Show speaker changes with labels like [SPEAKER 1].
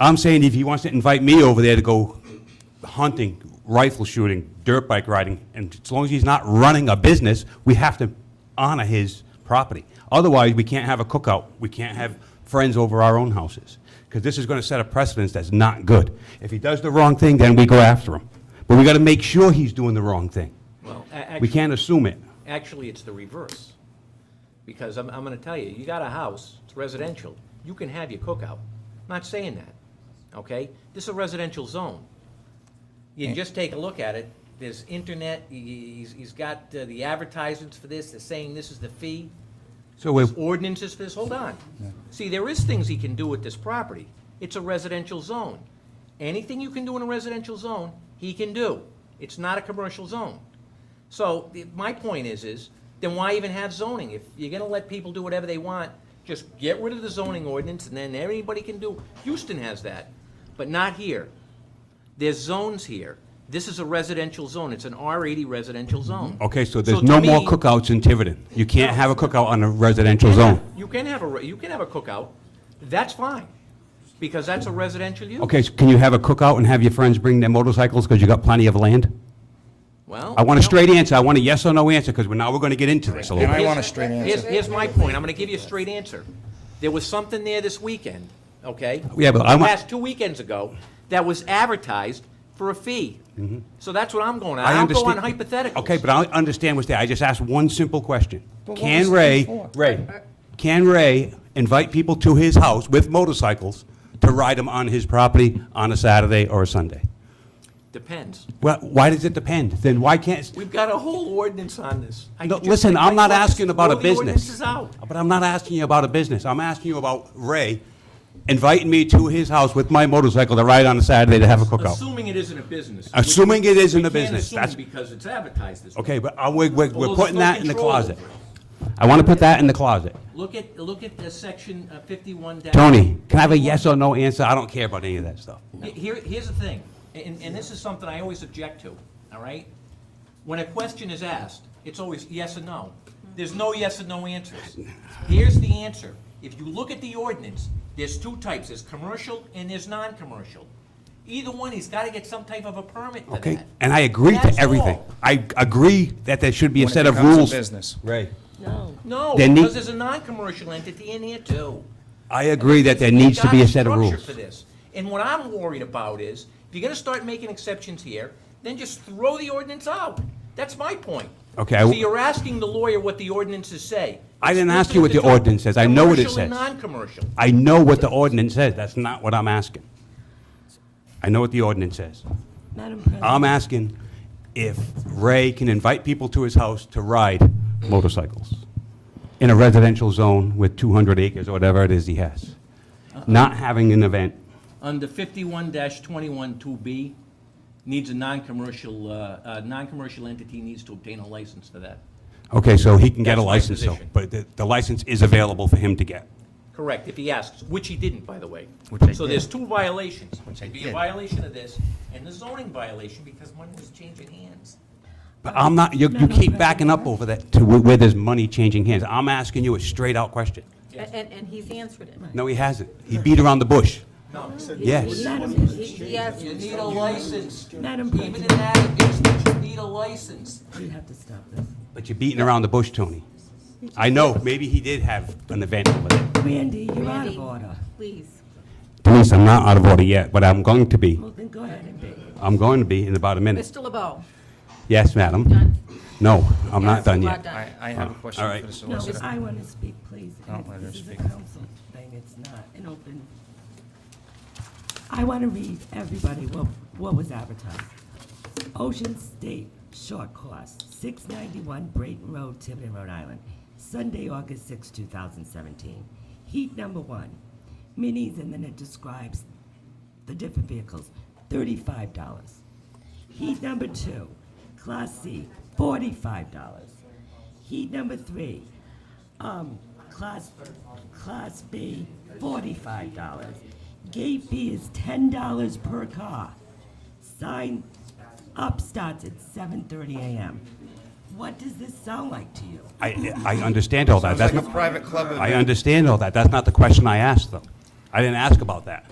[SPEAKER 1] I'm saying if he wants to invite me over there to go hunting, rifle shooting, dirt bike riding, and as long as he's not running a business, we have to honor his property. Otherwise, we can't have a cookout, we can't have friends over our own houses, because this is going to set a precedence that's not good. If he does the wrong thing, then we go after him. But we got to make sure he's doing the wrong thing.
[SPEAKER 2] Well, a-
[SPEAKER 1] We
[SPEAKER 2] actually-
[SPEAKER 1] can't assume it.
[SPEAKER 2] Actually, it's the reverse. Because I'm, I'm gonna tell you, you got a house, it's residential, you can have your cookout. Not saying that, okay? This is a residential zone. You just take a look at it, there's internet, he- he's, he's got uh, the advertisements for this, they're saying this is the fee,
[SPEAKER 1] So if,
[SPEAKER 2] ordinances for this, hold on. See, there is things he can do with this property. It's a residential zone. Anything you can do in a residential zone, he can do. It's not a commercial zone. So, the- my point is, is then why even have zoning? If you're gonna let people do whatever they want, just get rid of the zoning ordinance and then everybody can do. Houston has that, but not here. There's zones here. This is a residential zone. It's an R eighty residential zone.
[SPEAKER 1] okay, so there's
[SPEAKER 2] to
[SPEAKER 1] no more
[SPEAKER 2] me-
[SPEAKER 1] cookouts in Tiverton. You can't have a cookout on a residential zone.
[SPEAKER 2] You can have a, re- you can have a cookout, that's fine, because that's a residential use.
[SPEAKER 1] Okay, so can you have a cookout and have your friends bring their motorcycles because you got plenty of land?
[SPEAKER 2] Well.
[SPEAKER 1] I want a
[SPEAKER 2] no.
[SPEAKER 1] straight answer, I want a yes or no answer, because now we're gonna get into this a little
[SPEAKER 3] And I
[SPEAKER 1] bit.
[SPEAKER 3] want a straight
[SPEAKER 2] Here's,
[SPEAKER 3] answer.
[SPEAKER 2] here's my point, I'm gonna give you a straight answer. There was something there this weekend, okay?
[SPEAKER 1] Yeah, but I want-
[SPEAKER 2] Past two weekends ago, that was advertised for a fee. So that's what I'm going on,
[SPEAKER 1] Mm-hmm. I
[SPEAKER 2] I don't go on
[SPEAKER 1] understand-
[SPEAKER 2] hypotheticals.
[SPEAKER 1] Okay, but I understand what's there, I just asked one simple question.
[SPEAKER 3] But what was
[SPEAKER 1] Can
[SPEAKER 3] the
[SPEAKER 1] Ray,
[SPEAKER 3] before?
[SPEAKER 1] Ray, can Ray invite people to his house with motorcycles to ride them on his property on a Saturday or a Sunday?
[SPEAKER 2] Depends,
[SPEAKER 1] Well, why does it depend? Then why can't,
[SPEAKER 2] we've got a whole ordinance on this. I
[SPEAKER 1] No,
[SPEAKER 2] just-
[SPEAKER 1] listen, I'm not
[SPEAKER 2] I- I-
[SPEAKER 1] asking about a
[SPEAKER 2] throw the
[SPEAKER 1] business.
[SPEAKER 2] ordinances out.
[SPEAKER 1] But I'm not asking you about a business. I'm asking you about Ray inviting me to his house with my motorcycle to ride on a Saturday to have a cookout.
[SPEAKER 2] Assuming it isn't a business. which-
[SPEAKER 1] Assuming it isn't
[SPEAKER 2] we
[SPEAKER 1] a
[SPEAKER 2] can't
[SPEAKER 1] business,
[SPEAKER 2] assume
[SPEAKER 1] that's-
[SPEAKER 2] Because it's advertised this way.
[SPEAKER 1] Okay, but I- we're, we're
[SPEAKER 2] Although
[SPEAKER 1] we're putting
[SPEAKER 2] there's no
[SPEAKER 1] that in the
[SPEAKER 2] control
[SPEAKER 1] closet.
[SPEAKER 2] over it.
[SPEAKER 1] I want to put that in the closet.
[SPEAKER 2] Look at, look at the section uh, fifty-one dash.
[SPEAKER 1] Tony, can I have a yes or no answer? I don't care about any of that stuff.
[SPEAKER 2] Here, here's the thing, and, and this is something I always object to, all right? When a question is asked, it's always yes or no. There's no yes or no answers. Here's the answer. If you look at the ordinance, there's two types, there's commercial and there's non-commercial. Either one, he's gotta get some type of a permit for
[SPEAKER 1] Okay?
[SPEAKER 2] that.
[SPEAKER 1] And I agree to
[SPEAKER 2] That's
[SPEAKER 1] everything.
[SPEAKER 2] all.
[SPEAKER 1] I agree that there should be a
[SPEAKER 3] When it
[SPEAKER 1] set of
[SPEAKER 3] becomes a
[SPEAKER 1] rules.
[SPEAKER 3] business.
[SPEAKER 1] Ray.
[SPEAKER 2] No,
[SPEAKER 1] Then the-
[SPEAKER 2] because there's a non-commercial entity in here too.
[SPEAKER 1] I agree that there needs to be a set of
[SPEAKER 2] structure
[SPEAKER 1] rules.
[SPEAKER 2] For this. And what I'm worried about is, if you're gonna start making exceptions here, then just throw the ordinance out. That's my point.
[SPEAKER 1] Okay, I-
[SPEAKER 2] So you're asking the lawyer what the ordinances say.
[SPEAKER 1] I didn't ask
[SPEAKER 2] It's
[SPEAKER 1] you what the
[SPEAKER 2] different between
[SPEAKER 1] ordinance says. I know what it
[SPEAKER 2] Commercial and
[SPEAKER 1] says.
[SPEAKER 2] non-commercial.
[SPEAKER 1] I know what the ordinance says. That's not what I'm asking. I know what the ordinance says.
[SPEAKER 4] Madam President,
[SPEAKER 1] I'm asking if Ray can invite people to his house to ride motorcycles in a residential zone with 200 acres or whatever it is he has, not having an event.
[SPEAKER 2] Under fifty-one twenty-one two B, needs a non-commercial, uh, uh, non-commercial entity needs to obtain a license for that.
[SPEAKER 1] Okay, so he can get a
[SPEAKER 2] That's my
[SPEAKER 1] license, though,
[SPEAKER 2] position.
[SPEAKER 1] but the the license is available for him to get.
[SPEAKER 2] Correct, if he asks, which he didn't, by the way.
[SPEAKER 3] Which I
[SPEAKER 2] So
[SPEAKER 3] did.
[SPEAKER 2] there's two violations.
[SPEAKER 3] Which I
[SPEAKER 2] It'd be a
[SPEAKER 3] did.
[SPEAKER 2] violation of this and the zoning violation because money was changing hands.
[SPEAKER 1] But I'm not, you you keep backing up over that to where where there's money changing hands. I'm asking you a straight-out question.
[SPEAKER 4] and, and- and he's answered it.
[SPEAKER 1] No, he hasn't. He beat around the bush.
[SPEAKER 2] No,
[SPEAKER 1] Yes.
[SPEAKER 4] Madam, he- he has-
[SPEAKER 2] you need a license.
[SPEAKER 4] Madam
[SPEAKER 2] Even in
[SPEAKER 4] President,
[SPEAKER 2] that instance, you need a license.
[SPEAKER 4] we have to stop this.
[SPEAKER 1] But you're beating around the bush, Tony. I know, maybe he did have an event over there.
[SPEAKER 4] Randy, you're out
[SPEAKER 5] Randy,
[SPEAKER 4] of order.
[SPEAKER 5] please.
[SPEAKER 1] Denise, I'm not out of order yet, but I'm going to be.
[SPEAKER 4] Well, then go ahead and be.
[SPEAKER 1] I'm going to be in about a minute.
[SPEAKER 5] Mr. LeBeau,
[SPEAKER 1] Yes, madam?
[SPEAKER 5] done?
[SPEAKER 1] No, I'm not
[SPEAKER 5] Yes,
[SPEAKER 1] done
[SPEAKER 5] you are
[SPEAKER 1] yet.
[SPEAKER 5] done.
[SPEAKER 3] I, I have a
[SPEAKER 1] All
[SPEAKER 3] question
[SPEAKER 1] right.
[SPEAKER 3] for the
[SPEAKER 4] No,
[SPEAKER 3] solicitor.
[SPEAKER 4] I want to speak, please.
[SPEAKER 3] Don't let her
[SPEAKER 4] This is a
[SPEAKER 3] speak.
[SPEAKER 4] council thing, it's not an open. I want to read everybody what, what was advertised. Ocean State Short Course, six ninety-one Brayton Road, Tiverton, Rhode Island, Sunday, August sixth, two thousand seventeen. Heat number one, minis, and then it describes the different vehicles, thirty-five dollars. Heat number two, Class C, forty-five dollars. Heat number three, um, Class, Class B, forty-five dollars. Gate fee is ten dollars per car. Sign up starts at seven thirty AM. What does this sound like to you?
[SPEAKER 1] I, I understand all that. That's
[SPEAKER 3] Like a
[SPEAKER 1] not,
[SPEAKER 3] private club event.
[SPEAKER 1] I understand all that. That's not the question I asked, though. I didn't ask about that.